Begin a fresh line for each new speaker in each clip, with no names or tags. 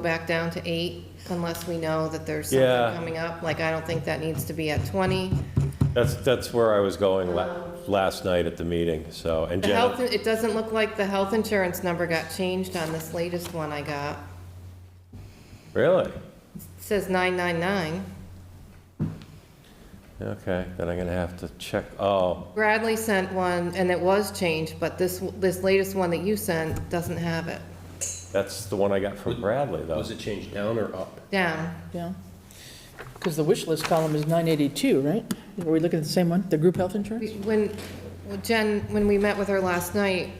go back down to eight unless we know that there's
Yeah.
something coming up. Like, I don't think that needs to be at 20.
That's, that's where I was going
Oh.
la- last night at the meeting, so, and
The health,
Jen,
it doesn't look like the health insurance number got changed on this latest one I got.
really?
It says 999.
Okay, then I'm gonna have to check, oh,
Bradley sent one, and it was changed, but this, this latest one that you sent doesn't have it.
that's the one I got from Bradley, though.
Was it changed down or up?
Down.
Yeah, because the wish list column is 982, right? Are we looking at the same one, the group health insurance?
We- When, when Jen, when we met with her last night,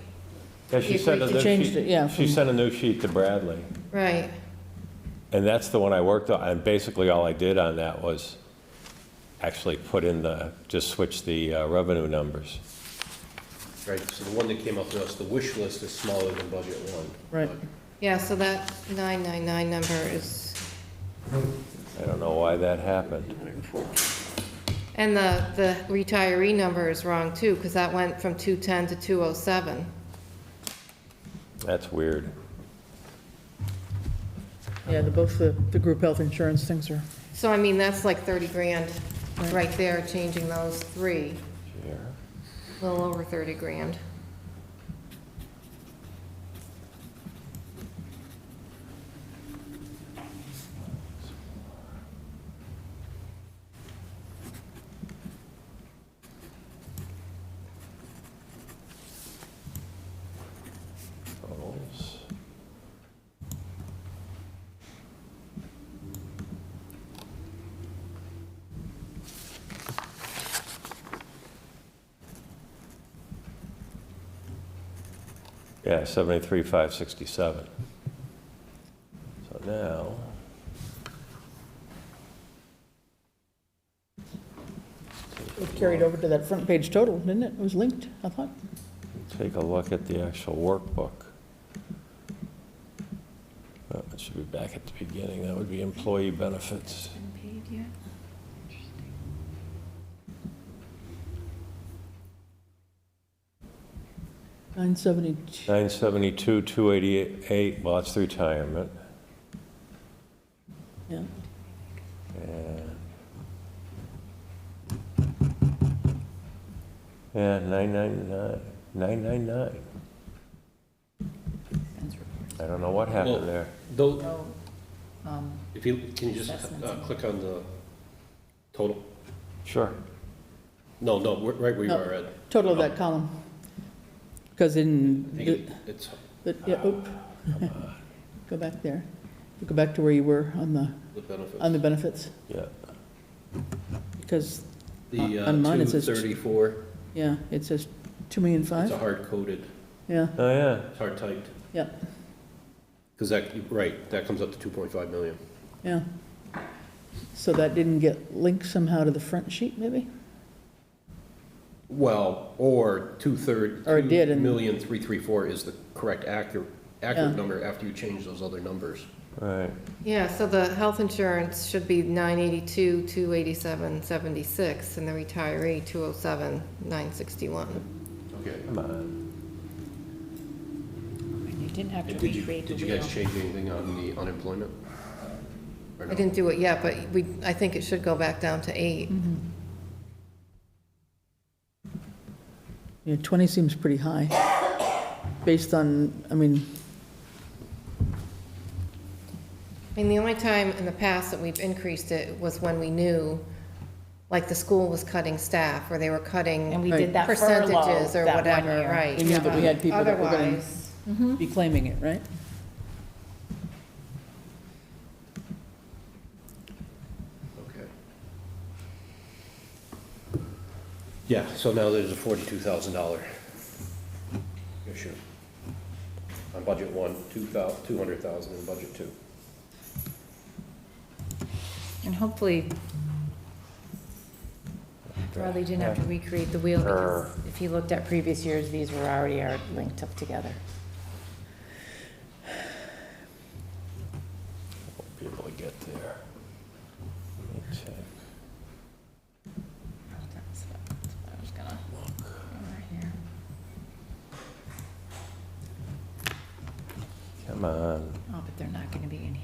Yeah, she
You
sent a
agreed
new
to change it, yeah,
sheet, she
from-
sent a new sheet to Bradley,
right,
and that's the one I worked on, and basically all I did on that was actually put in the, just switch the uh, revenue numbers.
Right, so the one that came up to us, the wish list is smaller than budget one.
Right.
but
yeah, so that 999 number is,
I don't know why that happened.
and the, the retiree number is wrong too, because that went from 210 to 207.
That's weird.
Yeah, the, both the, the group health insurance things are,
So I mean, that's like 30 grand right there, changing those three,
Here.
a little over 30 grand.
Totals. Yeah, seventy-three, five sixty-seven. So now.
it carried over to that front page total, didn't it? It was linked, I thought.
Take a look at the actual workbook. Uh, It should be back at the beginning, that would be employee benefits.
Nine seventy-two,
972, 288, well, that's retirement.
yeah.
And Yeah, 999, 999. I don't know what
Well-
happened there.
Though,
Um,
if you, can you just
Assessments.
uh, click on the total?
Sure.
No, no, we're- right where you
No.
are, Ed.
Total of that column. Because
I think it-
in,
It's,
but, yeah, oop. Go back there. Go back to where you were on the,
the benefits.
on the benefits,
Yeah,
because,
The
on mine
uh,
it says-
234,
yeah, it says two million
it's
five.
a hard coded,
Yeah,
oh, yeah.
it's hard typed.
yeah,
Because that, right, that comes up to 2.5 million.
yeah. So that didn't get linked somehow to the front sheet, maybe?
Well, or two-third.
Or it did and-
2,334,000 is the correct accurate, accurate
Yeah.
number after you change those other numbers.
Right,
Yeah, so the health insurance should be 982, 287, 76, and the retiree, 207, 961.
Okay.
come on.
and you didn't have to
And did you,
recreate the wheel.
did you guys change anything on the unemployment? Or
I
no?
didn't do it yet, but we, I think it should go back down to eight.
Yeah, 20 seems pretty high, based on, I mean,
I mean, the only time in the past that we've increased it was when we knew, like, the school was cutting staff, or they were cutting.
And we
Right.
did that furlough
Percentages or
that one
whatever,
year.
right.
We knew that we had people that were gonna-
Otherwise,
be claiming it, right?
Okay. Yeah, so now there's a forty-two thousand dollar issue. On budget one, two thou, two hundred thousand in budget two.
And hopefully, Bradley didn't have to recreate the wheel, because if you looked at previous years, these were already are linked up together.
Won't Be able to get there. Let me check.
Oh,